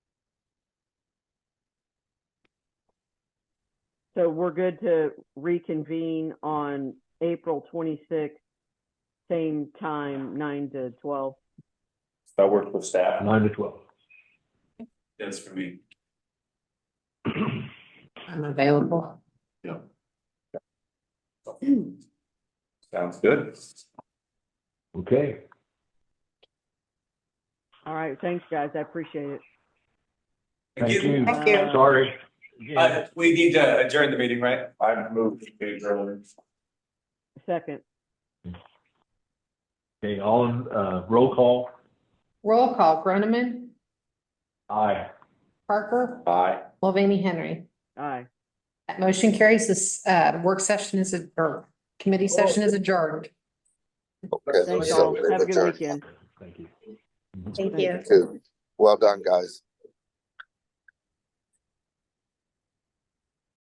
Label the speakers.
Speaker 1: so we're good to reconvene on April twenty-sixth, same time, nine to twelve.
Speaker 2: That worked with staff.
Speaker 3: nine to twelve.
Speaker 2: That's for me.
Speaker 4: I'm available.
Speaker 2: Sounds good.
Speaker 3: Okay,
Speaker 1: All right, thanks, guys. I appreciate it.
Speaker 3: thank you.
Speaker 4: Thank you.
Speaker 3: Sorry.
Speaker 5: Uh, we need to adjourn the meeting, right?
Speaker 2: I've moved to page earlier.
Speaker 1: Second,
Speaker 3: Okay, all in, uh, roll call.
Speaker 4: Roll call, Groneman,
Speaker 3: Aye.
Speaker 4: Parker,
Speaker 2: Aye.
Speaker 4: Mulvaney, Henry.
Speaker 1: aye.
Speaker 4: That motion carries this, uh, work session is, ad- or committee session is adjourned.
Speaker 1: Thanks
Speaker 6: so
Speaker 1: all.
Speaker 6: it's
Speaker 1: Have a good
Speaker 6: adjourned.
Speaker 1: weekend.
Speaker 3: Thank you.
Speaker 1: Thank you.
Speaker 6: Well done, guys.